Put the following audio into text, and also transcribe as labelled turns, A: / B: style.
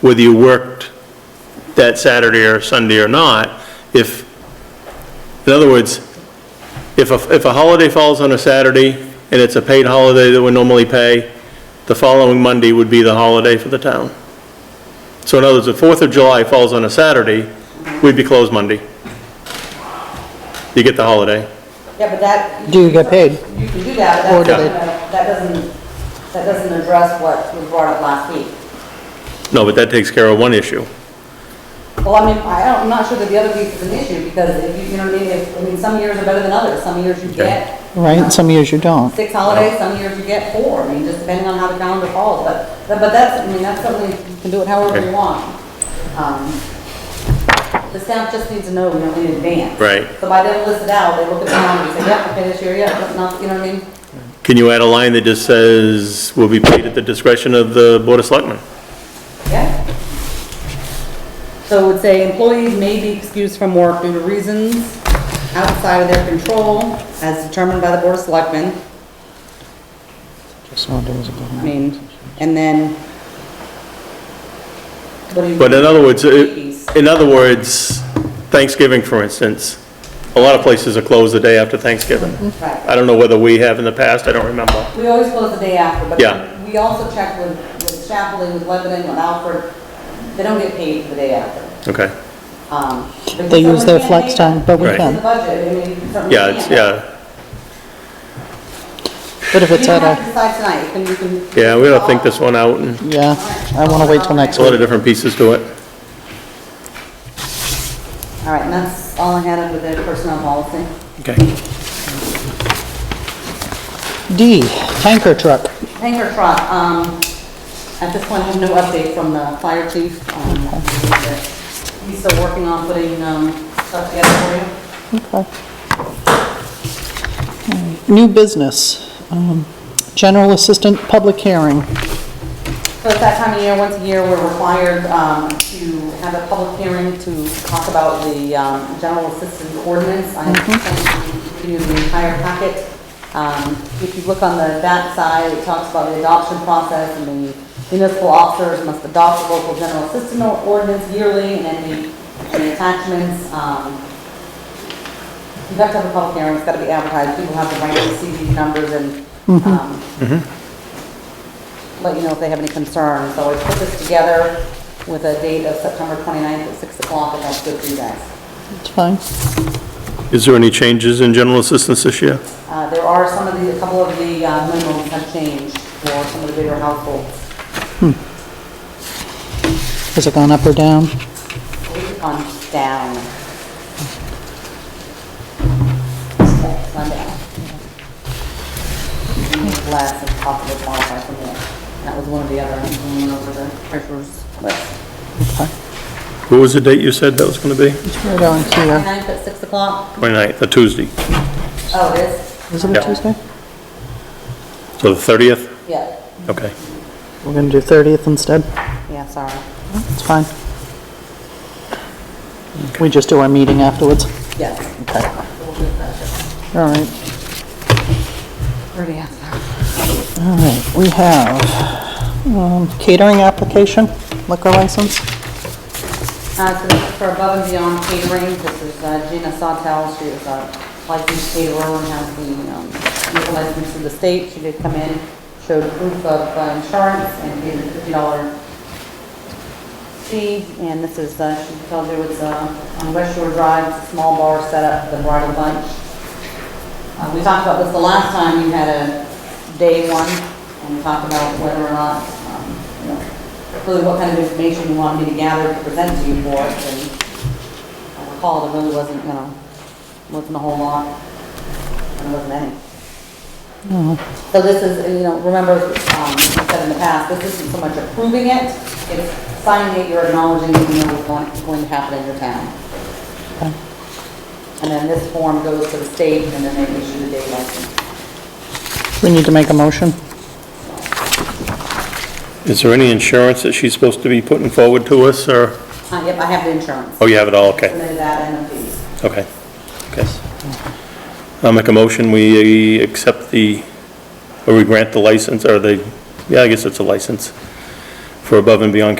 A: whether you worked that Saturday or Sunday or not, if, in other words, if a, if a holiday falls on a Saturday and it's a paid holiday that we normally pay, the following Monday would be the holiday for the town. So in other words, if Fourth of July falls on a Saturday, we'd be closed Monday. You get the holiday.
B: Yeah, but that,
C: Do you get paid?
B: you can do that,
C: Or
B: but
C: do
B: that doesn't,
C: they-
B: that doesn't, that doesn't address what was brought up last week.
A: No, but that takes care of one issue.
B: Well, I mean, I don't, I'm not sure that the other piece is an issue, because if you, you know, what I mean, if, I mean, some years are better than others, some years you get. you know,
C: Right, some years you don't.
B: Six holidays, some years you get four, I mean, just depending on how the calendar falls, but, but but that's, I mean, that's something, you can do it however you
A: Okay.
B: want. Um, The staff just needs to know, you know, in advance.
A: Right.
B: So by them list it out, they look at the calendar and say, yeah, okay, this year, yeah, that's not, you know what I mean?
A: Can you add a line that just says, "Will be paid at the discretion of the Board of Selectmen"?
B: Yeah. So it would say employees may be excused from work due to reasons outside of their control as determined by the Board of Selectmen.
C: Just wanted to-
B: I mean, and then. what do you-
A: But in other words,
B: Employees.
A: it- in other words, Thanksgiving, for instance, a lot of places are closed the day after Thanksgiving.
B: Right.
A: I don't know whether we have in the past, I don't remember.
B: We always close the day after, but.
A: Yeah.
B: We also check with, with Chaplain, with Lebanon, with Alfred, they don't get paid for the day after.
A: Okay,
B: Um, but
C: They use their
B: someone can't
C: flex
B: make
C: time, but we
B: it. It's in
C: can.
B: the budget, I mean, you certainly
A: yeah, it's,
B: can't.
A: yeah,
C: But if
B: You
C: it's
B: don't have
C: at
B: to
C: a,
B: decide tonight, you can, you can.
A: yeah, we gotta think this one out, and
C: yeah, I want to wait till next
A: there's a lot
C: week.
A: of different pieces to it.
B: All right, and that's all I had under the personnel policy.
A: Okay.
C: D, tanker truck.
B: Hangar truck, um, at this point, I have no update from the fire chief. um, He's still working on putting, um, stuff together for you.
C: Okay. New business, um, general assistant, public hearing.
B: So it's that time of year, once a year, we're required, um, to have a public hearing to talk about the, um, general assistance ordinance. I have sent you the entire packet. Um, if you look on the back side, it talks about the adoption process and the municipal officers must adopt the local general assistance ordinance yearly and then the, the attachments, um, You have to have a public hearing, it's got to be advertised, people have the right to see these numbers and um, let you know if they have any concerns. So I put this together with a date of September 29th at 6 o'clock, and that's good for you guys.
C: It's fine.
A: Is there any changes in general assistance this year?
B: Uh, There are some of the, a couple of the uh, minimums have changed for some of the bigger households.
C: Has it gone up or down?
B: We've gone down. It's gone down. We need Less if possible qualify for more. That was one of the other, one over the treasurer's list.
A: What was the date you said that was gonna be?
C: It's right on here.
B: Ninth at six o'clock?
A: 29th, a Tuesday,
B: Oh, it is?
C: Is it a
A: Yeah.
C: Tuesday?
A: so the 30th?
B: Yeah,
A: Okay.
C: We're going to do 30th instead.
B: yeah, sorry.
C: It's fine. We just do our meeting afterwards.
B: Yes.
C: Okay. All right.
B: Already asked that.
C: All right, we have um, catering application, liquor license.
B: Uh, so this is for Above and Beyond Catering, this is uh, Gina Sawtell, she is a licensed caterer and has the, um, legal license in the state. She did come in, showed proof of uh, insurance and gave a fifty dollar fee. And this is, uh, she tells you it's, uh, on West Shore Drive, it's a small bar set up, the bridal bunch. Uh, We talked about this the last time, you had a day one, and we talked about whether or not, um, you know, really what kind of information you wanted me to gather to present to you for it, and I recall it really wasn't, you know, wasn't a whole lot, and it wasn't any. So this is, you know, remember, um, I said in the past, this isn't so much approving it, it's signing it, you're acknowledging that you know what's going- going to happen in your town. And then this form goes to the state, and then they issue the day license.
C: We need to make a motion.
A: Is there any insurance that she's supposed to be putting forward to us, or,
B: Uh, Yep, I have the insurance,
A: oh, you have it all, okay.
B: submitted that and the fees.
A: Okay, okay. I'll make a motion, we accept the, or we grant the license, or the, yeah, I guess it's a license for above and beyond